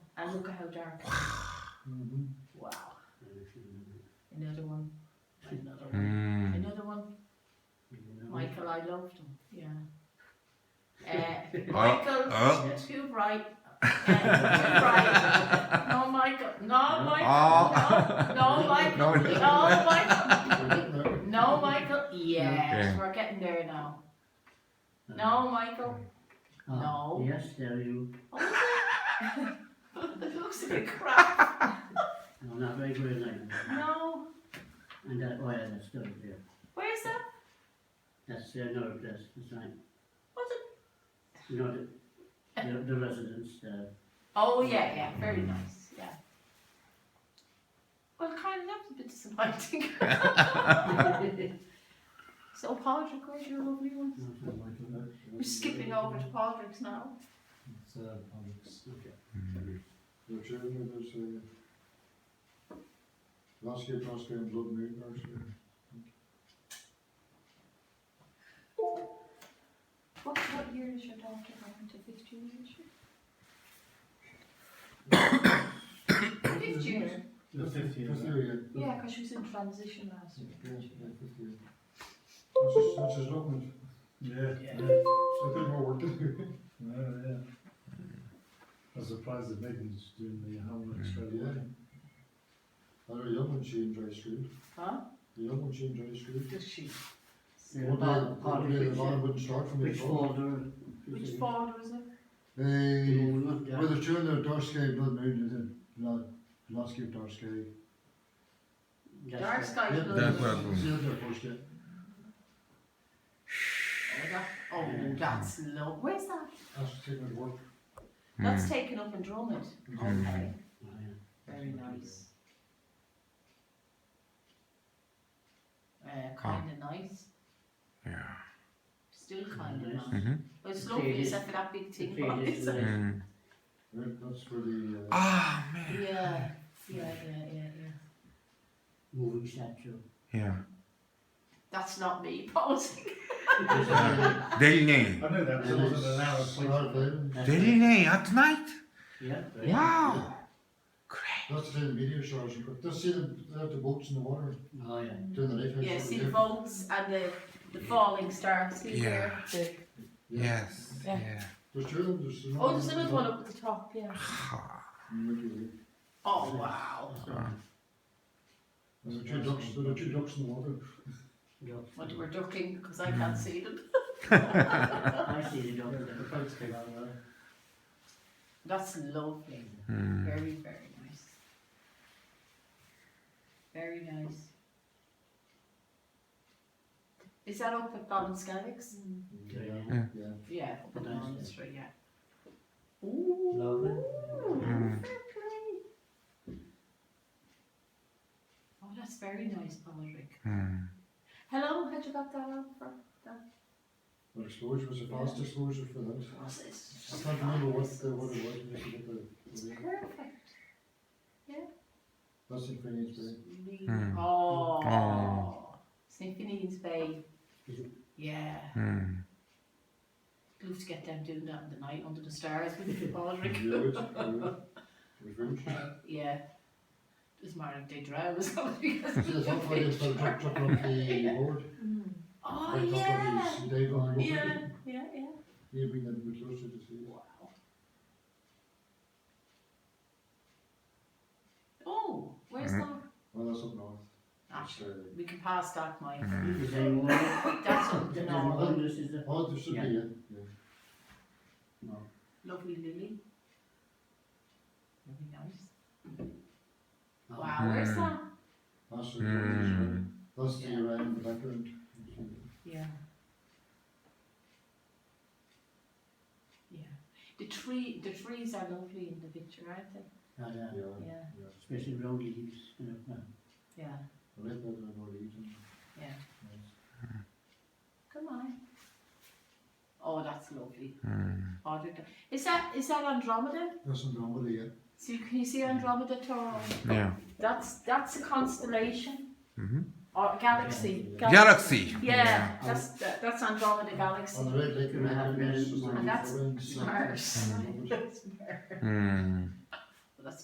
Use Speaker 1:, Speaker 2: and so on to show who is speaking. Speaker 1: and look at how dark.
Speaker 2: Mhm.
Speaker 1: Wow. Another one. Another one.
Speaker 3: Mm.
Speaker 1: Another one. Michael, I loved him. Yeah. Uh,
Speaker 3: Oh,
Speaker 1: Michael,
Speaker 3: oh.
Speaker 1: too bright. Uh, too bright. No, Michael. No, Michael.
Speaker 3: Oh.
Speaker 1: No, no, Michael.
Speaker 3: Uh. No,
Speaker 1: No,
Speaker 3: no.
Speaker 1: Michael. No, Michael. Yes,
Speaker 3: Yeah.
Speaker 1: we're getting there now. No, Michael. No.
Speaker 2: Uh, Yes, tell you.
Speaker 3: Hmm.
Speaker 1: It looks like crap.
Speaker 2: No, not very good name.
Speaker 1: No.
Speaker 2: And that, oh yeah, that's still there.
Speaker 1: Where's that?
Speaker 2: That's uh, another place, it's like,
Speaker 1: What's it?
Speaker 2: you know, the, the, the residents, uh,
Speaker 1: Oh yeah, yeah, very nice. Yeah. Well, kind of that was a bit disappointing. so Padraig, where's your lovely one? We're skipping over to Padraig's now.
Speaker 4: It's, uh, Alex.
Speaker 5: Your children, there's a last year, last year, blood moon, actually.
Speaker 1: What what year is your daughter going to fifth junior this year? fifth junior.
Speaker 4: The fifth year,
Speaker 5: Fifth year, yeah.
Speaker 1: Yeah, because she was in transition last year.
Speaker 5: Yeah, yeah, fifth year. That's just, that's just open,
Speaker 4: Yeah, yeah.
Speaker 5: so a bit more work to do.
Speaker 4: Yeah, yeah. I was surprised the big ones doing the helmet straight
Speaker 5: Yeah.
Speaker 4: away.
Speaker 5: I know, young one, she in Dry Street,
Speaker 1: Huh?
Speaker 5: the young one, she in Dry Street.
Speaker 1: Does she?
Speaker 2: Yeah,
Speaker 5: One
Speaker 2: Bob-
Speaker 5: day-
Speaker 2: Bob,
Speaker 5: one day the
Speaker 2: which,
Speaker 5: van
Speaker 2: uh,
Speaker 5: wouldn't start for me.
Speaker 2: which
Speaker 5: at all.
Speaker 2: folder?
Speaker 1: Which father is it?
Speaker 5: Hey, well,
Speaker 2: Yeah.
Speaker 5: the children of Dark Sky, blood moon, is it, last year, Dark Sky.
Speaker 1: Dark
Speaker 2: That's Oh,
Speaker 1: sky
Speaker 5: Yeah,
Speaker 1: blue.
Speaker 3: That one.
Speaker 5: that's- yeah, that's first year.
Speaker 1: Oh, that, oh, that's low. Where's that?
Speaker 5: That's taking it work.
Speaker 3: Hmm.
Speaker 1: That's taken up in Drummond.
Speaker 3: Mm.
Speaker 1: Okay,
Speaker 2: it. Oh, yeah.
Speaker 1: very nice. Uh, kinda nice,
Speaker 3: Yeah.
Speaker 1: still kinda
Speaker 2: Nice.
Speaker 1: nice.
Speaker 3: Mhm.
Speaker 1: Well, it's
Speaker 2: The
Speaker 1: lovely
Speaker 2: fade is-
Speaker 1: except for that big thing.
Speaker 2: the fade is
Speaker 1: but it's-
Speaker 3: Mm.
Speaker 5: Right, that's for the, uh,
Speaker 3: Ah, man.
Speaker 1: Yeah, yeah, yeah, yeah, yeah.
Speaker 2: Moving statue.
Speaker 3: Yeah.
Speaker 1: That's not me posing.
Speaker 3: Delney.
Speaker 4: I know that was
Speaker 2: And
Speaker 4: wasn't
Speaker 2: it's
Speaker 4: an hour
Speaker 5: Star
Speaker 4: place.
Speaker 5: Island.
Speaker 2: That's it.
Speaker 3: Delney at night?
Speaker 2: Yeah.
Speaker 3: Wow. Great.
Speaker 5: That's the meteor showers you've got. Just see them, they have the boats in the water
Speaker 2: Oh, yeah.
Speaker 5: doing the life.
Speaker 1: Yeah, see the boats and the, the falling stars. See
Speaker 3: Yeah.
Speaker 1: there? The-
Speaker 3: Yes.
Speaker 1: Yeah.
Speaker 3: Yeah.
Speaker 5: There's two of them, there's.
Speaker 1: Oh, there's another one up at the top, yeah.
Speaker 3: Ah.
Speaker 5: Milky Way.
Speaker 1: Oh, wow.
Speaker 5: There are two ducks, there are two ducks in the water.
Speaker 2: Duck.
Speaker 1: Well, we're ducking because I can't
Speaker 2: Mm.
Speaker 1: see them.
Speaker 2: I see the duck.
Speaker 4: The boats came out of there.
Speaker 1: That's lovely.
Speaker 3: Mm.
Speaker 1: Very, very nice. Very nice. Is that up at Ballinskagix?
Speaker 2: Yeah.
Speaker 3: Yeah.
Speaker 5: Yeah.
Speaker 1: Yeah, up at
Speaker 2: Nice, yeah.
Speaker 1: Ballinskagix, yeah. Ooh.
Speaker 2: Lovely.
Speaker 3: Mm.
Speaker 1: fair play. Oh, that's very nice, Patrick.
Speaker 3: Mm.
Speaker 1: Hello, had you got that on for?
Speaker 5: The exposure was a fast exposure for that.
Speaker 1: Was it?
Speaker 5: I can't remember what, the- what it was, but it's about the- the-
Speaker 1: Perfect.
Speaker 5: that's in Finnegan's Bay.
Speaker 3: Hmm.
Speaker 1: Oh.
Speaker 3: Oh.
Speaker 1: Symphony's Bay.
Speaker 2: Is it-
Speaker 1: Yeah.
Speaker 3: Mm.
Speaker 1: Love to get them doing that in the night under the stars with the Patrick.
Speaker 5: Yeah, it's- yeah. It was very interesting.
Speaker 1: Yeah. Does Mark they drown or something?
Speaker 5: See, that's not why they started chuck- chucking up the board.
Speaker 1: Oh
Speaker 5: Right up on
Speaker 1: yeah.
Speaker 5: his dive on the
Speaker 1: Yeah,
Speaker 5: board.
Speaker 1: yeah, yeah.
Speaker 5: Yeah, bring that a bit closer to see.
Speaker 1: Wow. Oh, where's
Speaker 3: Mm.
Speaker 1: that?
Speaker 5: Well, that's up north. That's,
Speaker 1: Actually,
Speaker 5: uh,
Speaker 1: we can pass that, Mike.
Speaker 3: Mm.
Speaker 2: Is there more?
Speaker 1: That's up the
Speaker 2: There's
Speaker 1: north.
Speaker 2: more. This is the-
Speaker 5: Oh, there should be,
Speaker 2: Yeah.
Speaker 5: yeah, yeah. No,
Speaker 1: Lovely Lily. Very nice. Wow,
Speaker 2: Oh,
Speaker 1: where's
Speaker 3: Mm.
Speaker 1: that?
Speaker 5: that's the,
Speaker 3: Mm.
Speaker 5: that's uh, the Iran in the background.
Speaker 1: Yeah. Yeah. The tree, the trees are lovely in the picture, aren't they?
Speaker 2: Ah, yeah.
Speaker 5: Yeah,
Speaker 1: Yeah,
Speaker 5: yeah.
Speaker 2: Especially round leaves, you know.
Speaker 1: yeah.
Speaker 5: I like that in Norwegian.
Speaker 1: Yeah.
Speaker 5: Yes.
Speaker 1: Come on. Oh, that's lovely.
Speaker 3: Mm.
Speaker 1: Oh, the- Is that is that Andromeda?
Speaker 5: That's in Norway, yeah.
Speaker 1: So you, can you see Andromeda Taurus?
Speaker 3: Yeah.
Speaker 1: That's that's a constellation
Speaker 3: Mhm.
Speaker 1: or galaxy.
Speaker 3: Galaxy.
Speaker 1: Yeah, that's that, that's Andromeda galaxy.
Speaker 5: On the right, like
Speaker 2: Yeah.
Speaker 5: Iran, it's just
Speaker 2: And
Speaker 5: like
Speaker 1: that's
Speaker 5: Iran, so-
Speaker 1: Mars.
Speaker 5: Mm.
Speaker 1: That's Mars.
Speaker 3: Mm.